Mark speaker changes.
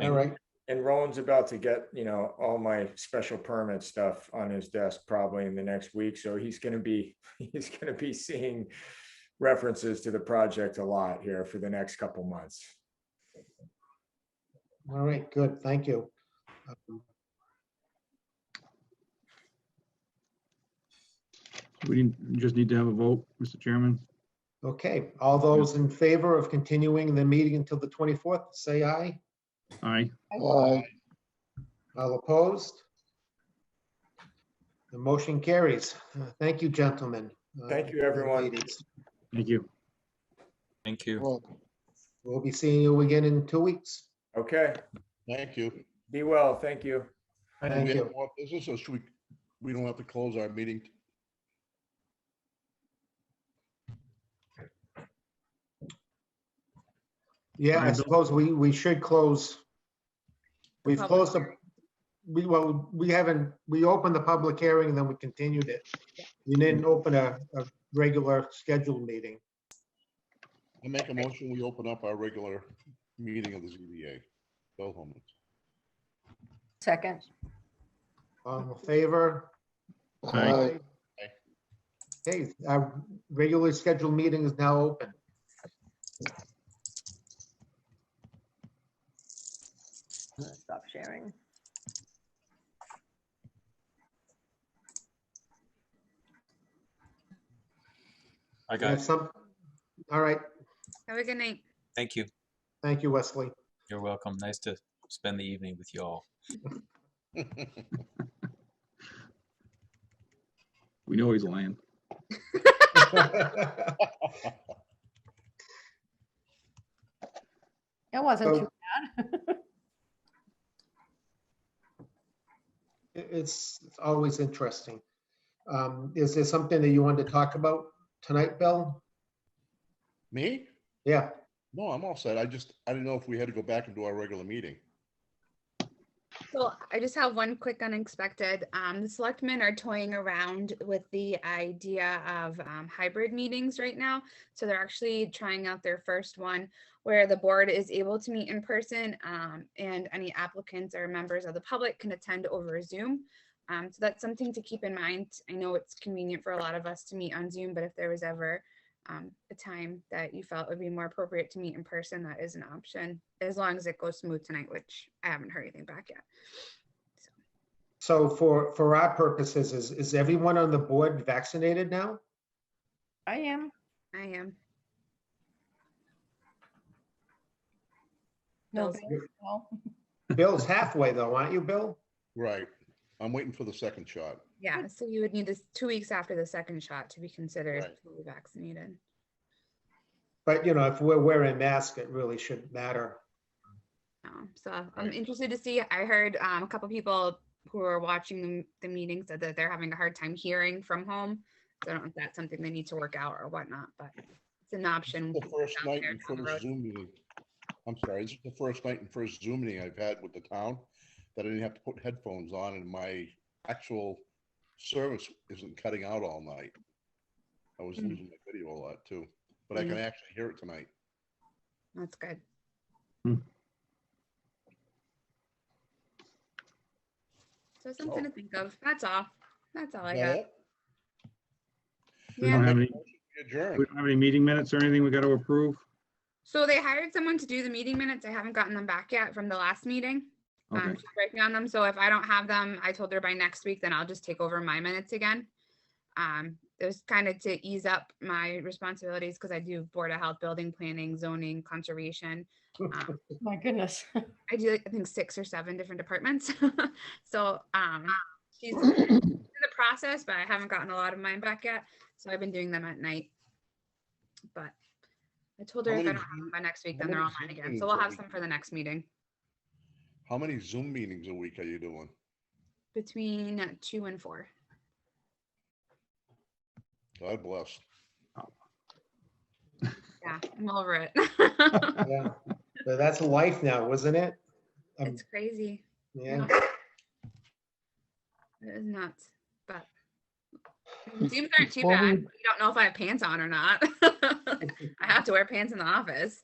Speaker 1: All right,
Speaker 2: And Roland's about to get, you know, all my special permit stuff on his desk probably in the next week, so he's gonna be, he's gonna be seeing references to the project a lot here for the next couple months.
Speaker 1: all right, good, thank you. Um,
Speaker 3: We didn't, just need to have a vote, Mr. Chairman.
Speaker 1: Okay, all those in favor of continuing the meeting until the 24th, say aye.
Speaker 3: Aye.
Speaker 1: All opposed? The motion carries. Uh, Thank you, gentlemen. Uh,
Speaker 2: Thank you, everyone.
Speaker 1: ladies.
Speaker 3: Thank you.
Speaker 4: Thank you.
Speaker 1: We'll be seeing you again in two weeks.
Speaker 2: Okay,
Speaker 5: Thank you.
Speaker 2: be well, thank you.
Speaker 5: Do
Speaker 1: Thank
Speaker 5: we have
Speaker 1: you.
Speaker 5: more business or should we, we don't have to close our meeting?
Speaker 1: Yeah,
Speaker 3: All
Speaker 1: I
Speaker 3: right, Bill.
Speaker 1: suppose we, we should close. We've
Speaker 6: public
Speaker 1: closed the,
Speaker 6: hearing.
Speaker 1: we, well, we haven't, we opened the public hearing and then we continued it. We didn't open a, a regular scheduled meeting.
Speaker 5: I make a motion, we open up our regular meeting of the ZBA. Bill Holman.
Speaker 6: Second.
Speaker 1: All in Um, favor?
Speaker 3: Aye.
Speaker 1: Okay, our regularly scheduled meeting is now open.
Speaker 6: I'm gonna Stop sharing.
Speaker 4: I
Speaker 1: We
Speaker 4: got
Speaker 1: have
Speaker 4: it.
Speaker 1: some- All right,
Speaker 7: Have a good night.
Speaker 4: Thank you.
Speaker 1: thank you, Wesley.
Speaker 4: You're welcome. Nice to spend the evening with you all.
Speaker 3: We know he's lying.
Speaker 6: It wasn't
Speaker 1: So-
Speaker 6: too bad.
Speaker 1: It- It's it's always interesting. Um, Is there something that you wanted to talk about tonight, Bill?
Speaker 5: Me?
Speaker 1: Yeah,
Speaker 5: No, I'm all set. I just, I didn't know if we had to go back and do our regular meeting.
Speaker 7: So I just have one quick unexpected. Um, the selectmen are toying around with the idea of um, hybrid meetings right now. So they're actually trying out their first one where the board is able to meet in person um, and any applicants or members of the public can attend over Zoom. Um, so that's something to keep in mind. I know it's convenient for a lot of us to meet on Zoom, but if there was ever um, a time that you felt would be more appropriate to meet in person, that is an option, as long as it goes smooth tonight, which I haven't heard anything back yet.
Speaker 1: so for, for our purposes, is, is everyone on the board vaccinated now?
Speaker 6: I am.
Speaker 7: I am.
Speaker 6: No,
Speaker 7: Bill's-
Speaker 6: Bill, no.
Speaker 1: Bill's halfway though, aren't you, Bill?
Speaker 5: Right. I'm waiting for the second shot.
Speaker 7: Yeah, so you would need this two weeks after the second shot to be considered
Speaker 5: Right.
Speaker 7: fully vaccinated.
Speaker 1: But you know, if we're wearing masks, it really shouldn't matter.
Speaker 7: Um, so I'm
Speaker 5: Right.
Speaker 7: interested to see. I heard um, a couple people who are watching the, the meeting said that they're having a hard time hearing from home. So I don't know if that's something they need to work out or whatnot, but it's an option.
Speaker 5: The first
Speaker 7: down
Speaker 5: night
Speaker 7: there
Speaker 5: and
Speaker 7: down the road.
Speaker 5: first Zoom meeting. I'm sorry, this is the first night and first Zoom meeting I've had with the town that I didn't have to put headphones on and my actual service isn't cutting out all night. I was
Speaker 7: Mm.
Speaker 5: losing my video a lot too, but I can actually hear it tonight.
Speaker 7: That's good.
Speaker 3: Hmm.
Speaker 7: So something
Speaker 5: Oh.
Speaker 7: to think of. That's all. That's all I
Speaker 5: Is that
Speaker 7: got.
Speaker 5: it?
Speaker 3: We don't
Speaker 7: Yeah.
Speaker 3: have any,
Speaker 5: Adjourn.
Speaker 3: we don't have any meeting minutes or anything we got to approve?
Speaker 7: So they hired someone to do the meeting minutes. I haven't gotten them back yet from the last meeting.
Speaker 3: Okay,
Speaker 7: Um, she's working on them. So if I don't have them, I told her by next week, then I'll just take over my minutes again. Um, it was kind of to ease up my responsibilities because I do board of health, building planning, zoning, conservation. Um,
Speaker 6: My goodness.
Speaker 7: I do, like, I think, six or seven different departments. so um, she's in the process, but I haven't gotten a lot of mine back yet. So I've been doing them at night. But I told her
Speaker 5: How
Speaker 7: if I don't
Speaker 5: many
Speaker 7: have them by next week,
Speaker 5: how
Speaker 7: then they're
Speaker 5: many
Speaker 7: online
Speaker 5: Zoom
Speaker 7: again.
Speaker 5: meetings
Speaker 7: So we'll
Speaker 5: a
Speaker 7: have
Speaker 5: week?
Speaker 7: some for the next meeting
Speaker 5: How many Zoom meetings a week are you doing?
Speaker 7: between two and four.
Speaker 5: God bless.
Speaker 7: Yeah, I'm over it.
Speaker 1: Yeah, but that's life now, isn't it? Um,
Speaker 7: it's crazy.
Speaker 1: Yeah,
Speaker 7: It is nuts, but Zooms aren't too bad. You don't know if I have pants on or not. I have to wear pants in the office.